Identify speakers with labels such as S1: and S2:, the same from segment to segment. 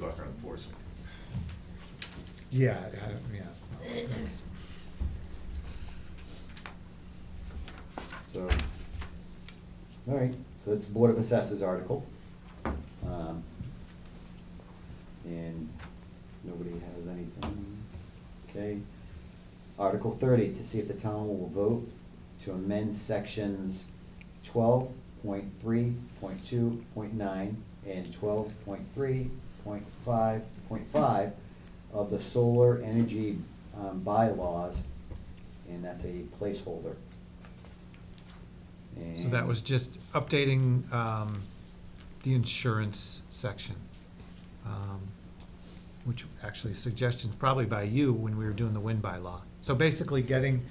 S1: luck on enforcing.
S2: Yeah, I- I don't- yeah. no, that's-
S3: So, all right, so it's Board of Assessors article. Um, And nobody has anything, okay? Article thirty, to see if the town will vote to amend sections twelve point three, point two, point nine, and twelve point three, point five, point five of the solar energy um, bylaws, and that's a placeholder.
S4: So that was just updating um, the insurance section, um, which actually suggestions probably by you when we were doing the wind bylaw. So basically getting,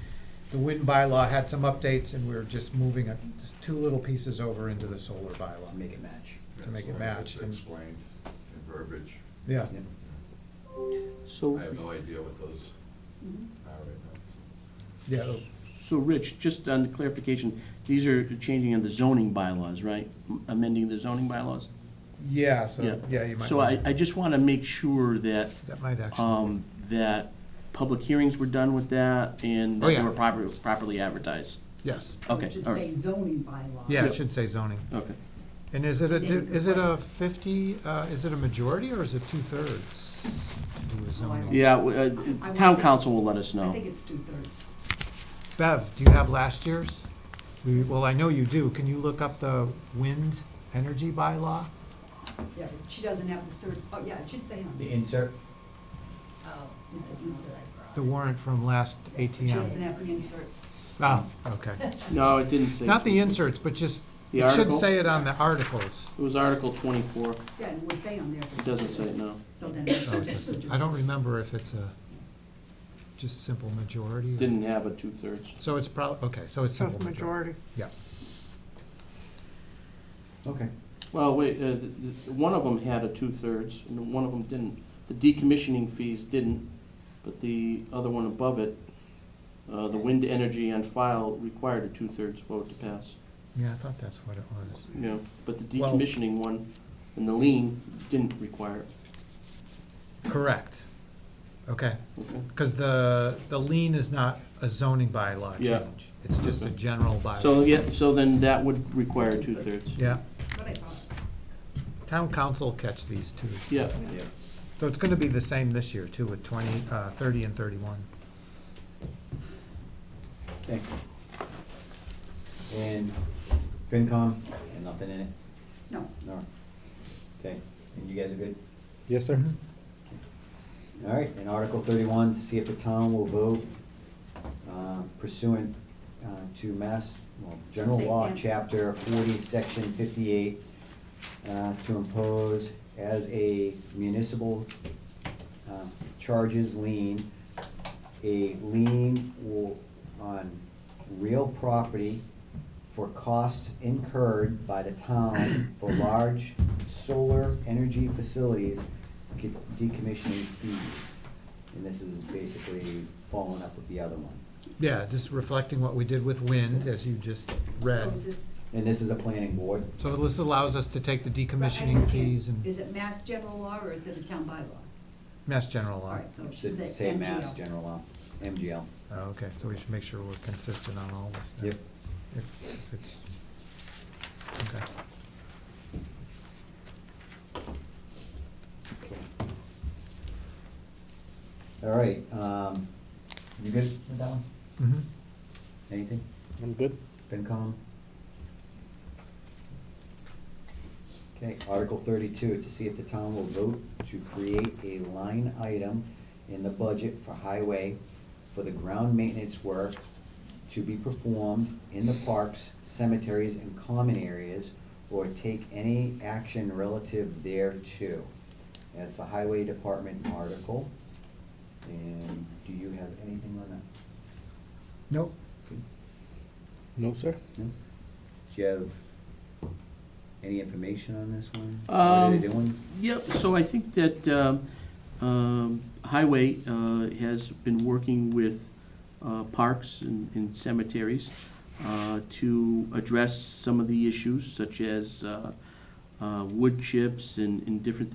S4: the wind bylaw had some updates and we were just moving a- just two little pieces over into the solar
S3: To
S2: bylaw.
S3: Make it match.
S2: To make it
S1: As long as it's
S2: match and-
S1: Explained in verbiage.
S2: Yeah,
S3: Yep.
S5: So,
S1: I have no idea what those are right
S2: yeah, it'll-
S5: so Rich, just on the clarification, these are changing in the zoning bylaws, right? M- Amending the zoning bylaws?
S2: yeah, so, yeah, you might.
S5: So I,
S2: wanna-
S5: I just want to make sure that,
S4: That might actually,
S5: um, that public hearings were done with that
S4: Oh,
S5: and that they
S4: yeah.
S5: were proper, properly advertised.
S4: yes.
S5: Okay,
S6: It should
S5: all right.
S6: say zoning bylaw.
S4: Yeah, it should say zoning.
S5: Okay.
S4: And is it a, di- is it a fifty, uh, is it a majority or is it two-thirds? Do a zoning?
S5: Yeah, w- uh,
S6: I
S5: town
S6: would-
S5: council will let us
S6: I
S5: know.
S6: think it's two-thirds.
S4: Bev, do you have last year's? We, well, I know you do. Can you look up the wind energy bylaw?
S6: Yeah, but she doesn't have the cert, oh, yeah, it should say on.
S3: The insert?
S6: Oh, it's an insert.
S4: The warrant from last
S6: She doesn't
S4: ATM?
S6: have the inserts.
S4: Oh, okay.
S5: No, it didn't say.
S4: Not the inserts, but just,
S5: The
S4: it should
S5: article?
S4: say it on the articles.
S5: It was Article twenty-four. It
S6: Yeah, and it would say on there. but-
S5: doesn't say, no.
S6: So then it's
S4: Oh, it doesn't. I don't remember if it's a, just simple majority. or-
S5: Didn't have a two-thirds.
S4: So it's probably okay, so it's simple
S7: Says
S4: majority.
S7: majority.
S4: Yeah.
S3: Okay.
S5: Well, wait, uh, th- th- one of them had a two-thirds, and one of them didn't. The decommissioning fees didn't, but the other one above it, uh, the wind energy on file required a two-thirds vote to pass.
S4: Yeah, I thought that's what it was.
S5: You know, but the
S4: Well-
S5: decommissioning one and the lien didn't require it,
S4: Correct. Okay,
S5: okay?
S4: because the, the lien is not a zoning bylaw
S5: Yeah.
S4: change. It's just a
S5: Okay.
S4: general bylaw.
S5: So, yeah, so then that would require two-thirds.
S4: Yeah,
S6: But I thought.
S4: town council catch these two.
S5: Yeah,
S3: Yeah.
S4: So it's gonna be the same this year too, with twenty, uh, thirty and thirty-one.
S3: Thank you. And FinCom, and nothing in it?
S6: No.
S3: No. Okay, and you guys are good?
S2: Yes, sir.
S3: All right, in Article thirty-one, to see if the town will vote uh, pursuant uh, to Mass, well, General
S6: Say
S3: Law,
S6: and.
S3: Chapter forty, Section fifty-eight, uh, to impose as a municipal uh, charges lien, a lien will- on real property for costs incurred by the town for large solar energy facilities de- decommissioning fees. And this is basically following up with the other one.
S4: Yeah, just reflecting what we did with wind, as you just read.
S6: So Oh, is this-
S3: And this is a planning board.
S4: So this allows us to take the
S6: but I
S4: decommissioning
S6: understand.
S4: fees and
S6: Is it mass general law or is it a town bylaw?
S4: mass general law.
S6: Alright, so it should say
S3: Say Mass
S6: MGL.
S3: General Law, MGL.
S4: Oh, Okay, so we should make sure we're consistent on all this then.
S3: Yep.
S4: If, if it's, okay.
S3: All right, um, you good with that one?
S4: Mhm.
S3: Anything?
S7: I'm good.
S3: FinCom? Okay, Article thirty-two, to see if the town will vote to create a line item in the budget for highway for the ground maintenance work to be performed in the parks, cemeteries, and common areas, or take any action relative thereto. That's the highway department article. And do you have anything on that?
S4: Nope,
S7: No, sir.
S3: No? Do you have any information on this one? What are
S5: Um,
S3: they doing?
S5: Yep, so I think that um, um, Highway uh, has been working with uh, parks and and cemeteries uh, to address some of the issues such as uh, uh, wood chips and and different